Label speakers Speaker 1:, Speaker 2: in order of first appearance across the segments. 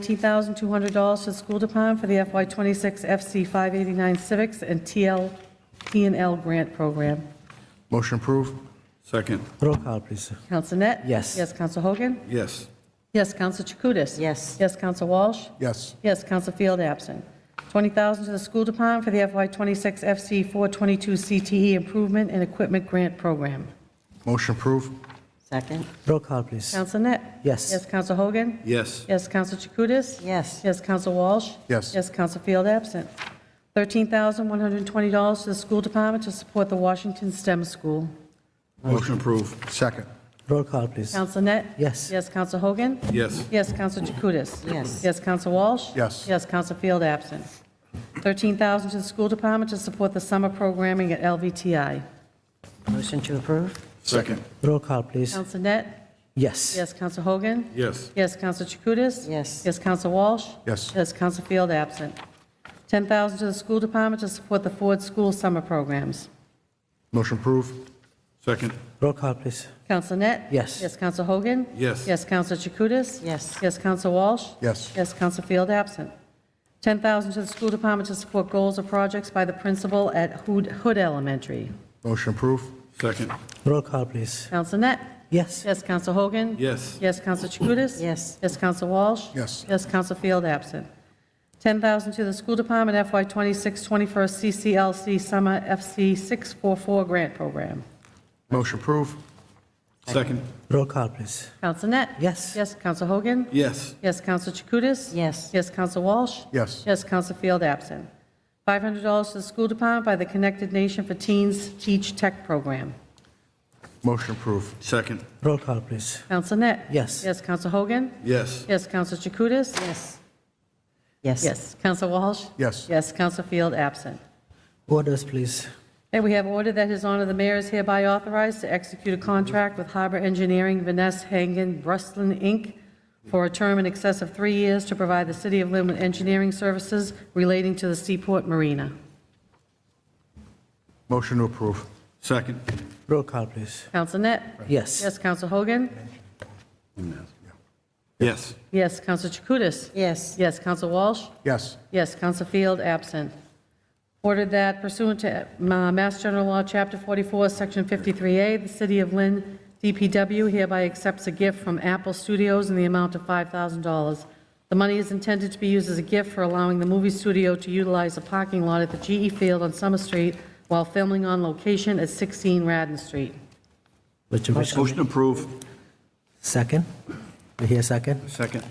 Speaker 1: $19,200 to the school department for the FY26 FC 589 Civics and TL, TNL Grant Program.
Speaker 2: Motion approved?
Speaker 3: Second,
Speaker 4: Roll call, please.
Speaker 1: Counsel Net?
Speaker 4: Yes.
Speaker 1: Yes, Counsel Hogan?
Speaker 3: yes.
Speaker 1: Yes, Counsel Chakutis?
Speaker 5: Yes.
Speaker 1: Yes, Counsel Walsh?
Speaker 2: Yes.
Speaker 1: Yes, Counsel Field absent. 20000 to the school department for the FY26 FC 422 CTE E Improvement and Equipment Grant Program.
Speaker 2: Motion approved?
Speaker 5: Second?
Speaker 4: Roll call, please.
Speaker 1: Counsel Net?
Speaker 4: Yes.
Speaker 1: Yes, Counsel Hogan?
Speaker 3: Yes.
Speaker 1: Yes, Counsel Chakutis?
Speaker 5: Yes.
Speaker 1: Yes, Counsel Walsh?
Speaker 2: Yes.
Speaker 1: Yes, Counsel Field absent. $13,120 to the school department to support the Washington STEM School.
Speaker 3: Motion approved.
Speaker 2: Second?
Speaker 4: Roll call, please.
Speaker 1: Counsel Net?
Speaker 4: Yes.
Speaker 1: Yes, Counsel Hogan?
Speaker 3: Yes.
Speaker 1: Yes, Counsel Chakutis?
Speaker 5: Yes.
Speaker 1: Yes, Counsel Walsh?
Speaker 2: Yes.
Speaker 1: Yes, Counsel Field absent. 13000 to the school department to support the summer programming at LVTI.
Speaker 5: Motion to approve?
Speaker 3: Second,
Speaker 4: Roll call, please.
Speaker 1: Counsel Net?
Speaker 4: Yes.
Speaker 1: Yes, Counsel Hogan?
Speaker 3: yes.
Speaker 1: Yes, Counsel Chakutis?
Speaker 5: Yes.
Speaker 1: Yes, Counsel Walsh?
Speaker 2: Yes.
Speaker 1: Yes, Counsel Field absent. 10000 to the school department to support the Ford School summer programs.
Speaker 2: Motion approved?
Speaker 3: Second,
Speaker 4: Roll call, please.
Speaker 1: Counsel Net?
Speaker 4: Yes.
Speaker 1: Yes, Counsel Hogan?
Speaker 3: Yes.
Speaker 1: Yes, Counsel Chakutis?
Speaker 5: Yes.
Speaker 1: Yes, Counsel Walsh?
Speaker 2: Yes.
Speaker 1: Yes, Counsel Field absent. 10000 to the school department to support goals or projects by the principal at Hood Hood Elementary.
Speaker 2: Motion approved?
Speaker 3: second,
Speaker 4: Roll call, please.
Speaker 1: Counsel Net?
Speaker 4: Yes.
Speaker 1: Yes, Counsel Hogan?
Speaker 3: yes.
Speaker 1: Yes, Counsel Chakutis?
Speaker 5: Yes.
Speaker 1: Yes, Counsel Walsh?
Speaker 2: Yes.
Speaker 1: Yes, Counsel Field absent. 10000 to the school department FY 26 21st CCLC Summer FC 644 Grant Program.
Speaker 2: Motion approved?
Speaker 3: Second,
Speaker 4: Roll call, please.
Speaker 1: Counsel Net?
Speaker 4: Yes.
Speaker 1: Yes, Counsel Hogan?
Speaker 3: yes.
Speaker 1: Yes, Counsel Chakutis?
Speaker 5: Yes.
Speaker 1: Yes, Counsel Walsh?
Speaker 2: Yes.
Speaker 1: Yes, Counsel Field absent. $500 to the school department by the Connected Nation for Teens Teach Tech Program.
Speaker 2: Motion approved?
Speaker 3: Second,
Speaker 4: Roll call, please.
Speaker 1: Counsel Net?
Speaker 4: Yes.
Speaker 1: Yes, Counsel Hogan?
Speaker 3: yes.
Speaker 1: Yes, Counsel Chakutis?
Speaker 5: Yes. Yes.
Speaker 1: Yes, Counsel Walsh?
Speaker 2: Yes.
Speaker 1: Yes, Counsel Field absent.
Speaker 4: Orders, please.
Speaker 1: And we have ordered that His Honor the Mayor is hereby authorized to execute a contract with Harbor Engineering Vanessa Hagen Brustlin, Inc. for a term in excess of three years to provide the City of Lynn with engineering services relating to the Seaport Marina.
Speaker 2: Motion to approve?
Speaker 3: Second,
Speaker 4: Roll call, please.
Speaker 1: Counsel Net?
Speaker 4: Yes.
Speaker 1: Yes, Counsel Hogan?
Speaker 3: yes.
Speaker 1: Yes, Counsel Chakutis?
Speaker 5: Yes.
Speaker 1: Yes, Counsel Walsh?
Speaker 2: Yes.
Speaker 1: Yes, Counsel Field, absent. Ordered that pursuant to uh, Mass General Law, Chapter 44, Section 53A, the City of Lynn DPW hereby accepts a gift from Apple Studios in the amount of $5,000. The money is intended to be used as a gift for allowing the movie studio to utilize the parking lot at the GE Field on Summer Street while filming on location at 16 Radden Street.
Speaker 4: Which, which,
Speaker 3: Motion approved.
Speaker 4: second? We hear second?
Speaker 3: Second,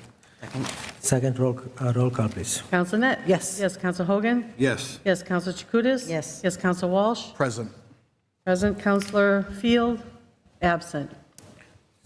Speaker 4: Second, roll, uh, roll call, please.
Speaker 1: Counsel Net?
Speaker 4: Yes.
Speaker 1: Yes, Counsel Hogan?
Speaker 3: yes.
Speaker 1: Yes, Counsel Chakutis?
Speaker 5: Yes.
Speaker 1: Yes, Counsel Walsh?
Speaker 2: Present?
Speaker 1: Present, Counselor Field, absent.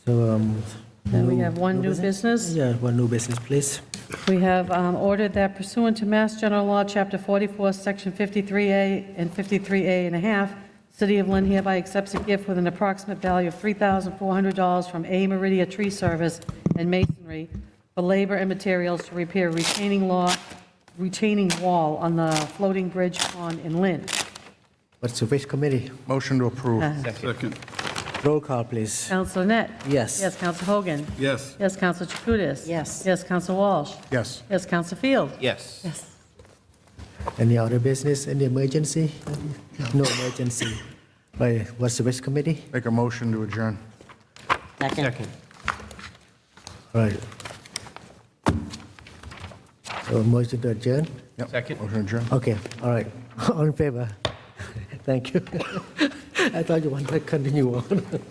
Speaker 4: So, um.
Speaker 1: Then we have one new business.
Speaker 4: Yeah, one new business, please.
Speaker 1: We have um, ordered that pursuant to Mass General Law, Chapter 44, Section 53A and 53A and a half, City of Lynn hereby accepts a gift with an approximate value of $3,400 from A Meridia Tree Service and Masonry for labor and materials to repair retaining law, retaining wall on the floating bridge pond in Lynn.
Speaker 4: What's the wish committee?
Speaker 2: Motion to approve?
Speaker 3: Second,
Speaker 4: Roll call, please.
Speaker 1: Counselor Net?
Speaker 4: Yes.
Speaker 1: Yes, Counsel Hogan?
Speaker 3: yes.
Speaker 1: Yes, Counsel Chakutis?
Speaker 5: Yes.
Speaker 1: Yes, Counsel Walsh?
Speaker 2: Yes.
Speaker 1: Yes, Counsel Field?
Speaker 6: Yes.
Speaker 1: Yes.
Speaker 4: Any other business, any emergency? No emergency. Right, what's the wish committee?
Speaker 2: Make a motion to adjourn?
Speaker 5: Second?
Speaker 6: Second.
Speaker 4: Right. So motion to adjourn?
Speaker 2: Yep.
Speaker 6: Second.
Speaker 2: Motion to adjourn?
Speaker 4: Okay, all right. All in favor? Thank you. I thought you wanted to continue on.